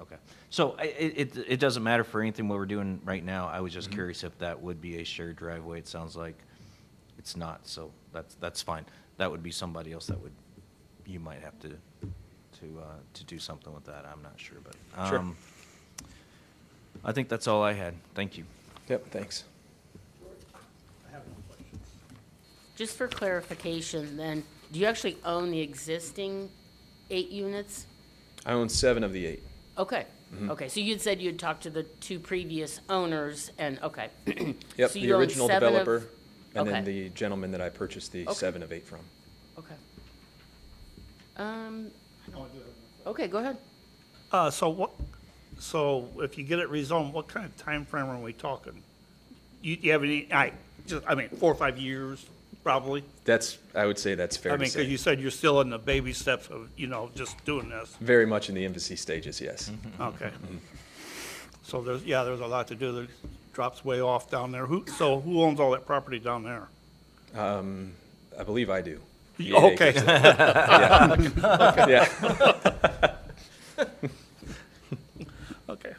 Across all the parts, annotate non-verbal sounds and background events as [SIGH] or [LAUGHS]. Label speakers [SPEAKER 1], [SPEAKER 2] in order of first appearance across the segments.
[SPEAKER 1] Okay. So i- i- it, it, it doesn't matter for anything what we're doing right now. I was
[SPEAKER 2] Mm-hmm.
[SPEAKER 1] just curious if that would be a shared driveway. It sounds like it's not, so that's, that's fine. That would be somebody else that would, you might have to, to, uh, to do something with that. I'm not sure, but.
[SPEAKER 3] Sure.
[SPEAKER 1] um, I think that's all I had. Thank you.
[SPEAKER 3] Yep, thanks.
[SPEAKER 2] Just for clarification, then, do you actually own the existing eight units?
[SPEAKER 3] I own seven of the eight.
[SPEAKER 2] Okay,
[SPEAKER 3] Mm-hmm.
[SPEAKER 2] okay, so you'd said you'd talked to the two previous owners, and, okay. [CLEARS THROAT]
[SPEAKER 3] Yep,
[SPEAKER 2] So
[SPEAKER 3] the
[SPEAKER 2] you own
[SPEAKER 3] original
[SPEAKER 2] seven of-
[SPEAKER 3] developer, and then
[SPEAKER 2] okay.
[SPEAKER 3] the gentleman that I purchased the
[SPEAKER 2] Okay.
[SPEAKER 3] seven of eight from.
[SPEAKER 2] Okay. Um, okay, go ahead.
[SPEAKER 4] Uh, so what, so if you get it rezoned, what kind of time frame are we talking? You, you have any, I, just, I mean, four or five years, probably?
[SPEAKER 3] That's, I would say that's
[SPEAKER 4] I
[SPEAKER 3] fair to
[SPEAKER 4] mean, cause you
[SPEAKER 3] say.
[SPEAKER 4] said you're still in the baby steps of, you know, just doing this,
[SPEAKER 3] Very much in the infancy stages, yes.
[SPEAKER 4] okay. So there's, yeah, there's a lot to do, there drops way off down there, who, so who owns all that property down there?
[SPEAKER 3] I believe I do. The eight
[SPEAKER 4] Okay,
[SPEAKER 3] acres. Yeah,
[SPEAKER 4] [LAUGHS] okay,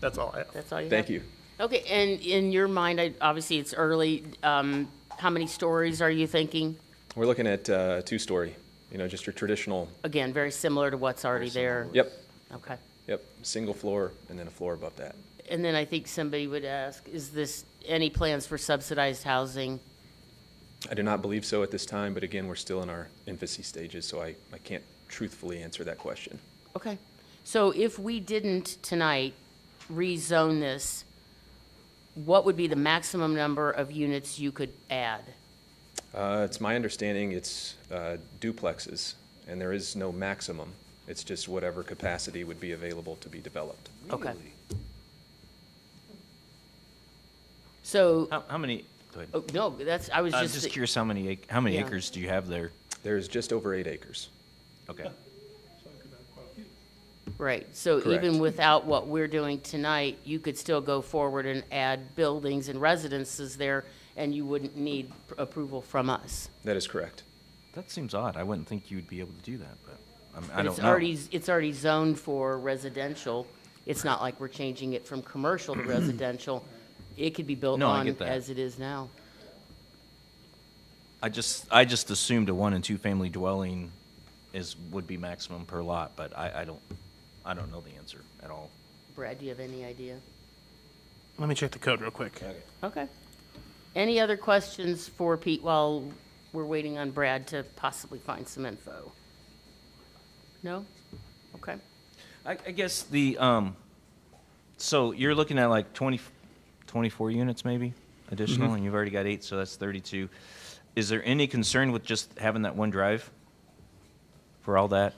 [SPEAKER 4] that's all I have.
[SPEAKER 2] That's all you have?
[SPEAKER 3] thank you.
[SPEAKER 2] Okay, and in your mind, I, obviously, it's early, um, how many stories are you thinking?
[SPEAKER 3] We're looking at uh, two-story, you know, just your traditional,
[SPEAKER 2] Again, very similar to what's already there.
[SPEAKER 3] yep,
[SPEAKER 2] Okay.
[SPEAKER 3] yep, single floor and then a floor above that.
[SPEAKER 2] And then I think somebody would ask, is this, any plans for subsidized housing?
[SPEAKER 3] I do not believe so at this time, but again, we're still in our infancy stages, so I, I can't truthfully answer that question.
[SPEAKER 2] Okay. So if we didn't tonight rezone this, what would be the maximum number of units you could add?
[SPEAKER 3] Uh, It's my understanding it's uh, duplexes, and there is no maximum. It's just whatever capacity would be available to be developed.
[SPEAKER 2] Okay. So,
[SPEAKER 1] How, how many, go ahead.
[SPEAKER 2] oh, no, that's, I was
[SPEAKER 1] I'm
[SPEAKER 2] just.
[SPEAKER 1] just curious, how many, ac- how many
[SPEAKER 2] Yeah.
[SPEAKER 1] acres do you have there?
[SPEAKER 3] There is just over eight acres.
[SPEAKER 1] Okay.
[SPEAKER 2] Right, so
[SPEAKER 3] Correct.
[SPEAKER 2] even without what we're doing tonight, you could still go forward and add buildings and residences there, and you wouldn't need pr- approval from us.
[SPEAKER 3] That is correct.
[SPEAKER 1] That seems odd. I wouldn't think you'd be able to do that, but I'm- I
[SPEAKER 2] But
[SPEAKER 1] don't
[SPEAKER 2] it's
[SPEAKER 1] know.
[SPEAKER 2] already, it's already zoned for residential. It's not like we're changing it from
[SPEAKER 1] [CLEARS THROAT]
[SPEAKER 2] commercial to residential. It could be built
[SPEAKER 1] No, I
[SPEAKER 2] on
[SPEAKER 1] get that.
[SPEAKER 2] as it is now.
[SPEAKER 1] I just, I just assumed a one and two family dwelling is, would be maximum per lot, but I, I don't, I don't know the answer at all.
[SPEAKER 2] Brad, do you have any idea?
[SPEAKER 5] Let me check the code real quick.
[SPEAKER 2] Okay. Any other questions for Pete while we're waiting on Brad to possibly find some info? No? Okay.
[SPEAKER 1] I, I guess the, um, so you're looking at like 20, 24 units maybe additional, and you've already got eight, so that's 32. Is there any concern with just having that one drive for all that?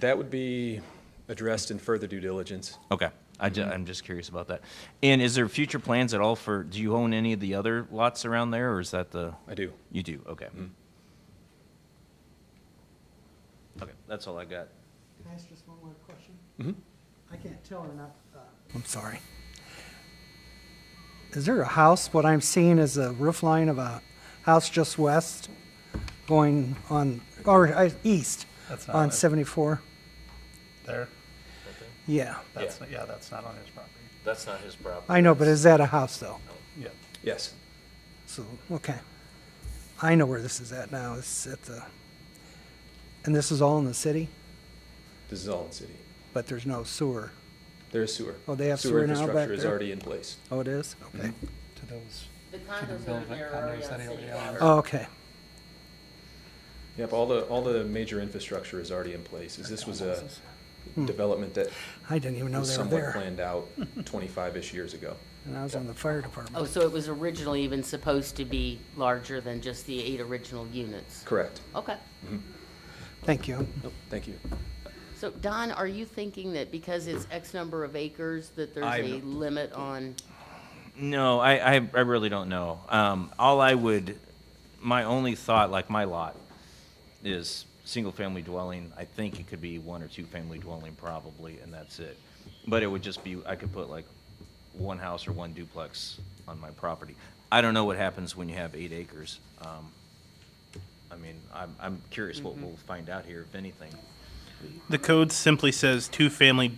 [SPEAKER 3] That would be addressed in further due diligence.
[SPEAKER 1] Okay, I ju- I'm just curious about that. And is there future plans at all for, do you own any of the other lots around there, or is that the?
[SPEAKER 3] I do.
[SPEAKER 1] You do, okay. Okay, that's all I got.
[SPEAKER 6] Can I ask just one more question? I can't tell enough. uh,
[SPEAKER 5] I'm sorry.
[SPEAKER 6] Is there a house, what I'm seeing is a roof line of a house just west going on, or uh, east
[SPEAKER 5] That's
[SPEAKER 4] Uh,
[SPEAKER 5] not
[SPEAKER 6] on
[SPEAKER 5] it.
[SPEAKER 6] 74?
[SPEAKER 5] There.
[SPEAKER 6] Yeah,
[SPEAKER 5] That's yeah. that's not on his property.
[SPEAKER 1] That's not his problem.
[SPEAKER 6] I know, but is that a house though?
[SPEAKER 5] Yeah.
[SPEAKER 3] Yes.
[SPEAKER 6] So, okay. I know where this is at now, it's at the, and this is all in the city,
[SPEAKER 3] This is all in city.
[SPEAKER 6] but there's no sewer.
[SPEAKER 3] There is sewer.
[SPEAKER 6] Oh, they have sewer now back
[SPEAKER 3] infrastructure is
[SPEAKER 6] there?
[SPEAKER 3] already in place.
[SPEAKER 6] Oh, it is? Okay.
[SPEAKER 5] To those.
[SPEAKER 2] The
[SPEAKER 5] to the
[SPEAKER 2] condos
[SPEAKER 5] build-
[SPEAKER 2] over there are already
[SPEAKER 5] condos that
[SPEAKER 2] on
[SPEAKER 5] he
[SPEAKER 2] city
[SPEAKER 5] already
[SPEAKER 2] water.
[SPEAKER 5] owns.
[SPEAKER 6] Oh, Okay.
[SPEAKER 3] Yep, all the, all the major infrastructure is already in place. Is This was a development that
[SPEAKER 6] I didn't even know
[SPEAKER 3] was
[SPEAKER 6] Hmm. they were
[SPEAKER 3] somewhat
[SPEAKER 6] there.
[SPEAKER 3] planned
[SPEAKER 6] [LAUGHS]
[SPEAKER 3] out 25-ish years ago.
[SPEAKER 6] And I was on the fire department.
[SPEAKER 2] Oh, so it was originally even supposed to be larger than just the eight original units?
[SPEAKER 3] Correct.
[SPEAKER 2] Okay.
[SPEAKER 6] Thank you.
[SPEAKER 3] Thank you.
[SPEAKER 2] So Don, are you thinking that because it's X number of acres, that there's a
[SPEAKER 1] I'm-
[SPEAKER 2] limit on?
[SPEAKER 1] No, I, I, I really don't know. Um, all I would, my only thought, like my lot, is single-family dwelling. I think it could be one or two-family dwelling probably, and that's it. But it would just be, I could put like one house or one duplex on my property. I don't know what happens when you have eight acres. Um, I mean, I'm, I'm curious what we'll find out here, if anything.
[SPEAKER 5] The code simply says two family